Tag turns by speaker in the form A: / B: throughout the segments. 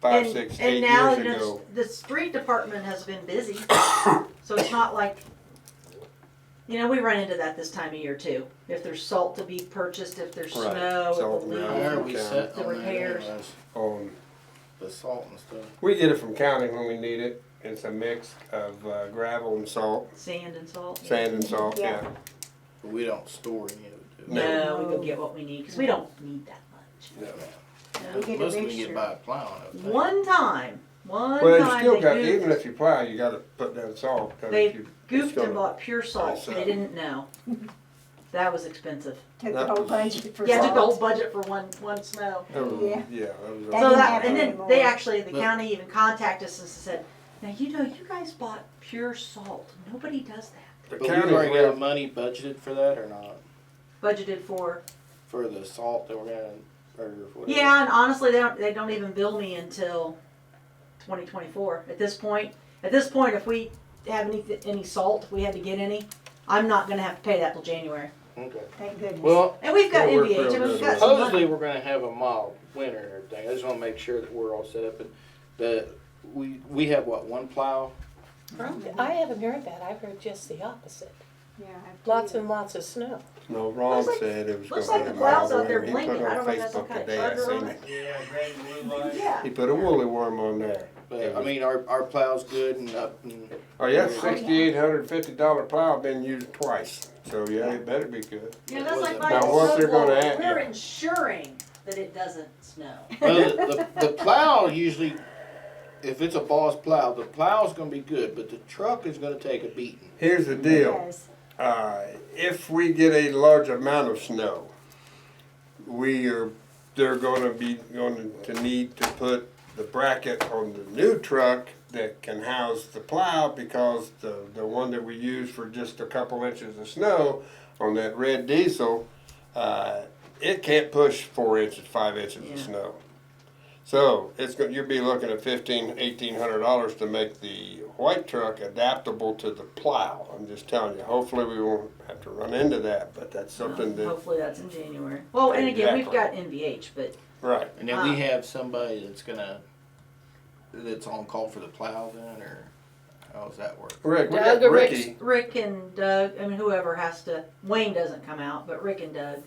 A: five,
B: And-
A: six,
B: and
A: eight
B: now
A: years
B: the-
A: ago.
B: The street department has been busy, so it's not like, you know, we run into that this time of year too. If there's salt to be purchased, if there's
A: Right.
B: snow,
A: Salt,
B: if the
A: yeah.
B: leaves.
A: Yeah.
C: Why are we set
B: The
C: on that
B: repairs.
C: anyways?
A: On
C: The salt and stuff.
A: um, we get it from county when we need it. It's a mix of uh, gravel and salt,
B: Sand and salt.
A: sand and salt. Yeah.
D: Yeah.
C: But we don't store any of it. do we?
B: No, we go get what we need, cause we don't need that much.
A: Yeah.
D: We get
C: Most
D: a
C: of we get
D: mixture.
C: by plowing up there.
B: One time, one
A: Well, you still
B: time
A: got
B: they
A: even
B: goofed,
A: if you plow, you got to put down salt. 'cause if
B: They
A: you- it's
B: goofed
A: gonna-
B: and bought pure salt,
A: Nice, uh,
B: they didn't know. That was expensive.
D: Took the
A: That
D: whole
A: was-
D: budget for
B: Yeah, took the whole
D: salt.
B: budget for one, one snow.
A: that was-
D: Yeah.
A: um, Yeah. that was a-
D: That
B: So
D: didn't
B: that,
D: happen
B: and then
D: anymore.
B: they actually, the
C: But-
B: county even contacted us and said, now, you know, you guys bought pure salt. Nobody does
A: the
B: that.
C: But we
A: county
C: already have
A: will-
C: money budgeted for that or not?
B: Budgeted for,
C: For the salt that we're gonna, or whatever?
B: yeah, and honestly, they don't, they don't even bill me until twenty twenty-four. At this point, at this point, if we have any, any salt, if we had to get any, I'm not gonna have to pay that till January.
C: Okay.
D: Thank goodness.
C: Well,
B: And we've got
A: That worked
B: NVH,
A: real
B: and we've
A: good.
B: got some
C: supposedly
B: money.
C: we're gonna have a mild winter and everything. I just wanna make sure that we're all set up and that we, we have what, one plow?
E: I haven't heard that. I've heard just the opposite.
D: Yeah, after
E: Lots
D: you-
E: and lots of snow.
A: No, Ron
B: Looks like-
A: said it was
B: looks
A: gonna
B: like
A: be
B: the
A: a mild
B: clouds out there
A: winter.
B: blinking. I don't know if
A: He
B: that's
A: put
B: some
A: it on Facebook
B: kind of
A: today. I
B: charger
A: seen
B: on
A: it.
F: Yeah, great blue light.
B: Yeah.
A: He put a woolly worm on there.
C: But I mean, our, our plow's good and up and
A: Oh yeah, sixty-eight hundred fifty dollar plow been used twice, so yeah, it better be good.
B: Yeah, that's like
C: Now,
B: buying a
A: what they're gonna
B: snowblower.
A: add,
B: We're
A: yeah.
B: ensuring that it doesn't snow.
C: Well, the, the, the plow usually, if it's a boss plow, the plow's gonna be good, but the truck is gonna take a beating.
A: Here's the deal,
D: Yes.
A: uh, if we get a large amount of snow, we are, they're gonna be, going to need to put the bracket on the new truck that can house the plow, because the, the one that we use for just a couple inches of snow on that red diesel, uh, it can't push four inches, five inches
B: Yeah.
A: of snow. So it's going you'll be looking at fifteen, eighteen hundred dollars to make the white truck adaptable to the plow. I'm just telling you. Hopefully, we won't have to run into that, but that's something
B: Um,
A: that
B: Hopefully that's in January. Well, and again, we've got
A: Exactly.
B: NVH, but
A: right.
C: And then we
B: Ah.
C: have somebody that's gonna, that's on call for the plow then, or how does that work?
A: Rick, we
E: Doug
A: got
E: or Rick's-
A: Ricky.
B: Rick and Doug, I mean, whoever has to, Wayne doesn't come out, but Rick and Doug,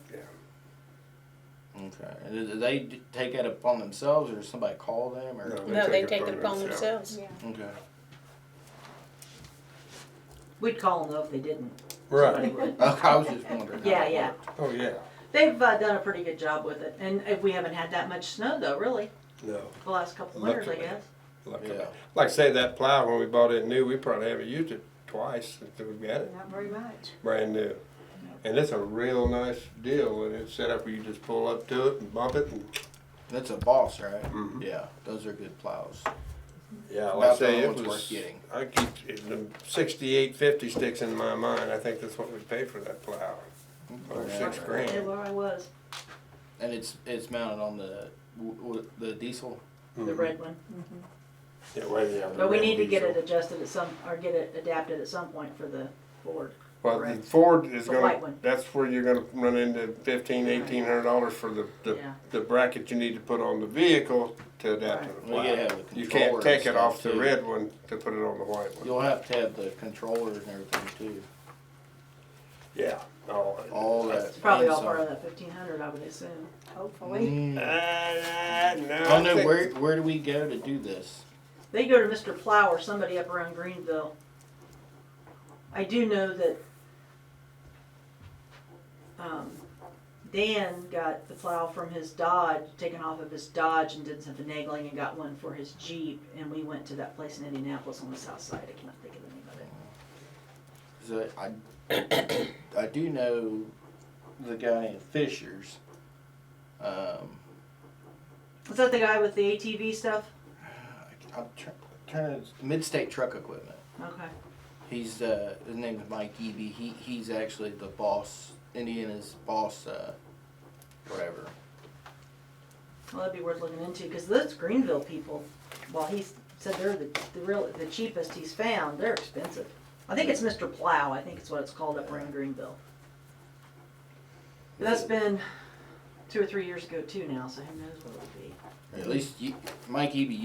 C: Okay, and do they d- take that upon themselves, or does somebody call them, or?
A: No.
E: No, they take it upon themselves.
D: Yeah.
C: Okay.
B: we'd call them though if they didn't. Somebody
A: Right.
B: would.
C: I was just wondering. how
B: Yeah,
C: that
B: yeah.
C: worked.
A: Oh yeah.
B: They've uh, done a pretty good job with it, and uh, we haven't had that much snow though, really,
A: No.
B: the last couple of winters, I
A: Luckily.
B: guess.
A: Luckily.
C: Yeah,
A: Like say that plow when we bought it new, we probably haven't used it twice since we got it
D: Not very much.
A: brand new. And it's a real nice deal, and it's set up where you just pull up to it and bump it, and
C: that's a boss, right?
A: Mhm.
C: Yeah, those are good plows.
A: Yeah,
C: About
A: like I say,
C: the
A: it
C: only
A: was.
C: ones worth getting.
A: I keep it- the sixty-eight fifty sticks in my mind. I think that's what we paid for that plow. Or six
C: Yeah.
A: grand.
B: Yeah, where I was,
C: And it's, it's mounted on the, w- w- the diesel?
B: the red one.
A: Yeah, well, yeah. Mm-hmm. the
B: But we
A: red
B: need to get
A: diesel.
B: it adjusted at some, or get it adapted at some point for the board.
A: Well, the
B: correct.
A: Ford is
B: The white
A: gonna,
B: one.
A: that's where you're gonna run into fifteen, eighteen hundred dollars for the, the,
B: Yeah.
A: the bracket you need to put on the vehicle to adapt to the
C: Well, you gotta
A: plow.
C: have the
A: You
C: controller
A: can't
C: and
A: take it
C: stuff,
A: off the
C: too.
A: red one to put it on the white one.
C: You'll have to have the controllers and everything too.
A: Yeah. all of it.
C: All that.
B: It's probably all
C: inside.
B: part of that fifteen hundred, I would assume.
D: Hopefully.
C: Mm.
A: Uh, no.
C: I don't
A: I
C: know
A: think-
C: where where do we go to do this?
B: They go to Mr. Plow or somebody up around Greenville. I do know that um, Dan got the plow from his Dodge, taken off of his Dodge and did some finagling and got one for his Jeep. And we went to that place in Indianapolis on the south side. I cannot think of the name of it.
C: 'Cause I I do know the guy in Fisher's. Um,
B: Is that the guy with the ATV stuff?
C: I- I'm tr- trying to Midstate Truck Equipment.
B: Okay.
C: He's uh, his name is Mike Eby. He he's actually the boss Indiana's boss uh, whatever.
B: Well, that'd be worth looking into because those Greenville people, while he said they're the, the real the cheapest he's found, they're expensive. I think it's Mr. Plow. I think it's what it's called up around Greenville. But that's been two or three years ago too now, so who knows what it'll be.
C: At least you, Mike Eby